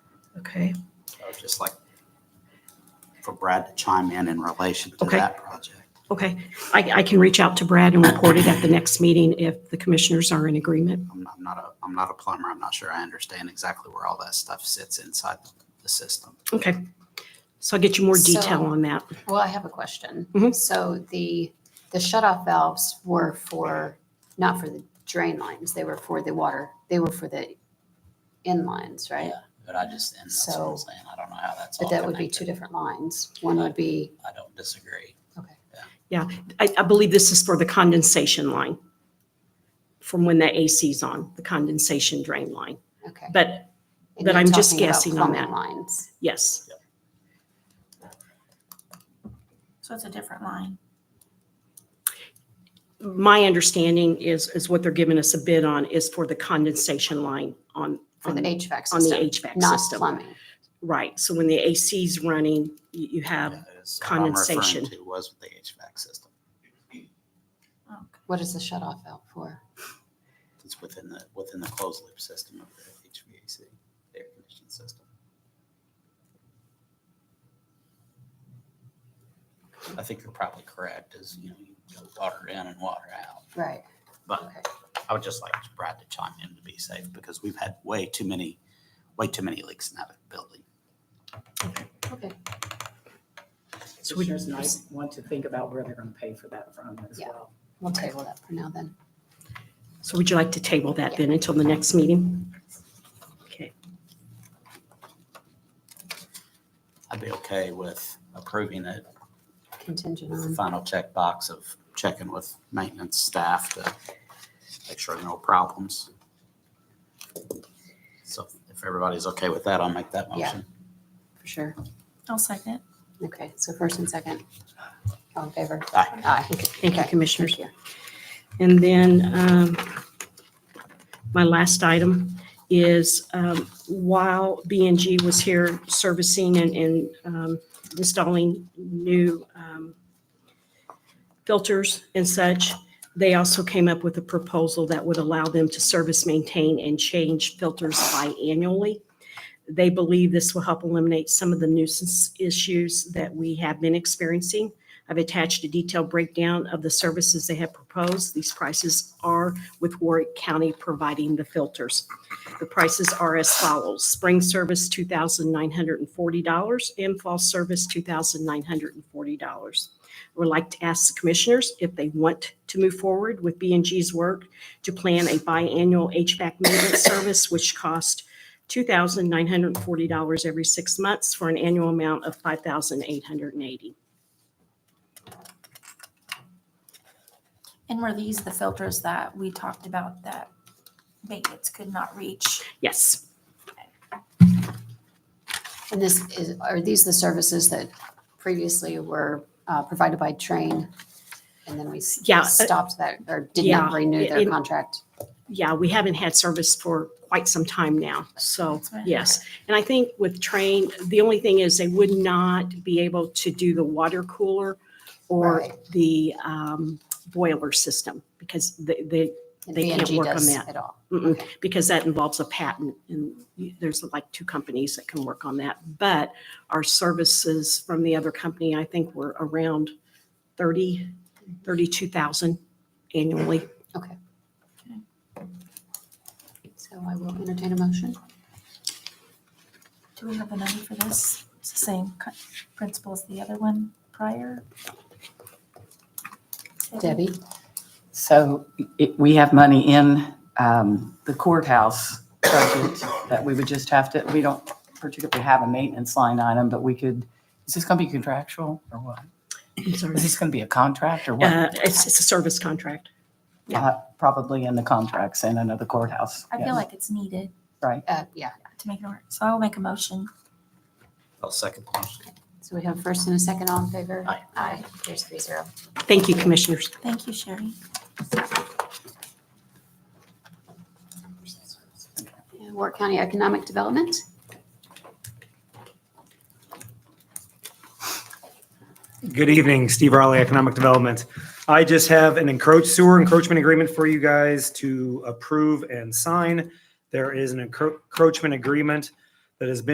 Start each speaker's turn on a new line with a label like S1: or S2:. S1: Okay,
S2: I would just like for Brad to chime in in relation to
S1: Okay.
S2: that project.
S1: okay. I, I can reach out to Brad and report it at the next meeting if the commissioners are in agreement.
S2: I'm not, I'm not a, I'm not a plumber. I'm not sure I understand exactly where all that stuff sits inside the system.
S1: Okay. So I'll get you more
S3: So-
S1: detail on that.
S3: Well, I have a question.
S1: Mhm.
S3: So the, the shut-off valves were for, not for the drain lines, they were for the water, they were for the in lines, right?
S4: But I just, and that's what I'm
S3: So-
S4: saying, I don't know how that's all
S3: But that would be two
S4: connected.
S3: different lines. One would be,
S4: I don't disagree.
S1: I, I believe this is for the condensation line from when the AC's on, the condensation drain line.
S3: okay.
S1: But
S3: And
S1: but
S3: you're
S1: I'm just
S3: talking about
S1: guessing on
S3: plumbing
S1: that.
S3: Lines.
S1: yes,
S5: So it's a different line.
S1: my understanding is, is what they're giving us a bid on is for the condensation line on.
S3: For the
S1: on-
S3: HVAC
S1: on the
S3: system,
S1: HVAC
S3: not
S1: system.
S3: plumbing.
S1: Right. So when the AC's running, you, you
S3: Um,
S1: have,
S2: That is what I'm referring
S1: condensation.
S2: to Was the HVAC system.
S3: What is the shut-off valve for?
S2: It's within the, within the closed loop system of the HVAC, the air conditioning system.
S4: I think you're probably correct, is, you know, you go water in and water out.
S3: Right.
S2: But
S3: Okay.
S2: I would just like Brad to chime in to be safe because we've had way too many, way too many leaks in that building.
S3: Okay.
S1: So we-
S6: Commissioners might want to think about where they're going to pay for that from as
S3: Yeah.
S6: well.
S3: We'll table that for now then.
S1: so would you like to table that then until the next meeting? Okay.
S2: I'd be okay with approving it
S3: Contingent
S2: with the
S3: on,
S2: final check box of checking with maintenance staff to make sure no problems. So if everybody's okay with that, I'll make that
S3: Yeah.
S2: motion.
S3: for sure.
S5: I'll second.
S3: Okay, so first and second. All in favor?
S2: Aye.
S3: Aye.
S1: Okay. Thank you,
S3: Okay.
S1: commissioners.
S3: Thank you.
S1: And then um, my last item is um, while B and G was here servicing and- and um, installing new um, filters and such, they also came up with a proposal that would allow them to service, maintain, and change filters biannually. They believe this will help eliminate some of the nuisance issues that we have been experiencing. I've attached a detailed breakdown of the services they have proposed. These prices are with Warwick County providing the filters. The prices are as follows. Spring service, $2,940, and fall service, $2,940. I Would like to ask the commissioners if they want to move forward with b and gs work to plan a biannual HVAC maintenance service, which costs $2,940 every six months for an annual amount of $5,880.
S5: And were these the filters that we talked about that maintenance could not reach?
S1: Yes,
S3: And this is, are these the services that previously were uh, provided by Train? And then we s-
S1: Yeah, uh,
S3: stopped that or did
S1: yeah,
S3: not renew their
S1: it-
S3: contract?
S1: yeah, we haven't had service for quite some time now, so,
S5: That's what I
S1: yes. And I think with train, the only thing is they would not be able to do the water cooler or
S3: Right.
S1: the um, boiler system, because they, they,
S3: And
S1: They can't
S3: B&G
S1: work on
S3: does
S1: that. Mm-hmm.
S3: At all.
S1: mm-mm, because that involves a patent, and you- there's like two companies that can work on that. But our services from the other company, I think were around 30, 32,000 annually.
S3: Okay.
S5: Okay.
S3: So I will entertain a motion.
S5: Do we have the number for this? It's the same co- principle as the other one prior?
S3: Debbie?
S6: So it- we have money in um, the courthouse budget that we would just have to, we don't particularly have a maintenance line item, but we could, is this going to be contractual or what?
S1: I'm sorry.
S6: Is this going to be a contract or what?
S1: Uh, It's, it's a service contract. yeah.
S6: Uh, Probably in the contracts in another courthouse.
S5: I
S6: yes.
S5: feel like it's needed
S6: Right.
S3: Uh, Yeah,
S5: to make it work. So I will make a motion.
S2: I'll second the motion.
S3: so we have first and a second, all in favor?
S2: Aye.
S3: Aye, there's three zero.
S1: Thank you, commissioners.
S5: Thank you, Sherry.
S3: And Warwick County Economic Development?
S7: Good evening, Steve Raleigh, Economic Development. I just have an encroach sewer encroachment agreement for you guys to approve and sign. There is an encro- encroachment agreement that has been